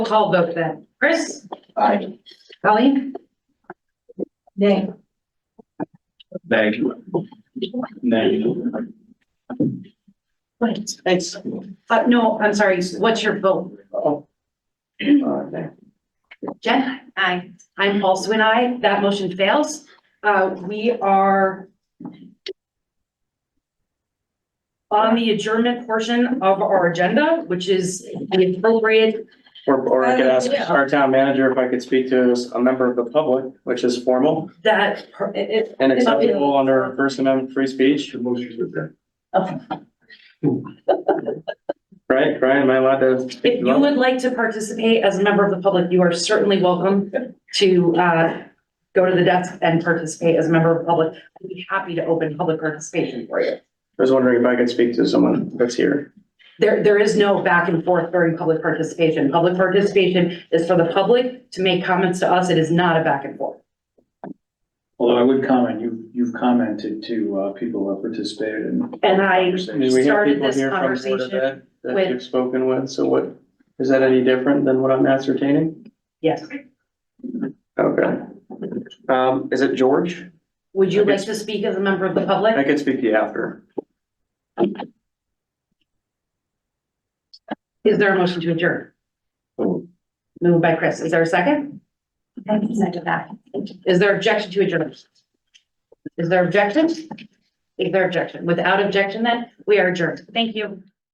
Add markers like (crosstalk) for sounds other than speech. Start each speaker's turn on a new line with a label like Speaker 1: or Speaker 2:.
Speaker 1: call vote then. Chris?
Speaker 2: Aye.
Speaker 1: Colleen? Nay.
Speaker 2: Thank you. Thank you.
Speaker 1: Wait,
Speaker 2: Thanks.
Speaker 1: uh, no, I'm sorry. What's your vote?
Speaker 2: Oh. Uh, thank-
Speaker 1: Jen? Aye. I'm also an aye. That motion fails. Uh, we are on the adjournment portion of our agenda, which is the appropriate,
Speaker 3: Or, or I could ask
Speaker 1: Um, Yeah.
Speaker 3: our town manager if I could speak to a member of the public, which is formal
Speaker 1: that, it,
Speaker 3: and acceptable under First Amendment free speech, (laughs) right? Brian, am I allowed to? speak
Speaker 1: If
Speaker 3: to
Speaker 1: you
Speaker 3: that?
Speaker 1: would like to participate as a member of the public, you are certainly welcome to uh, go to the desk and participate as a member of the public. I'd be happy to open public participation for you.
Speaker 3: I was wondering if I could speak to someone that's here.
Speaker 1: There, there is no back and forth during public participation. Public participation is for the public to make comments to us. It is not a back and forth.
Speaker 2: Although I would comment, you, you've commented to, uh, people who have participated in.
Speaker 1: And I,
Speaker 3: I mean, we have
Speaker 1: Started
Speaker 3: people
Speaker 1: this
Speaker 3: here from Board
Speaker 1: conversation
Speaker 3: of Ed
Speaker 1: with-
Speaker 3: that you've spoken with, so what, is that any different than what I'm ascertaining?
Speaker 1: yes,
Speaker 3: Okay. Um, is it George?
Speaker 1: would you like to speak as a member of the
Speaker 3: I
Speaker 1: public?
Speaker 3: could speak to you after.
Speaker 1: Is there a motion to adjourn? Moved by Chris. Is there a second? Is there objection to adjournment? Is there objection? Is there objection? Without objection then, we are adjourned. Thank you.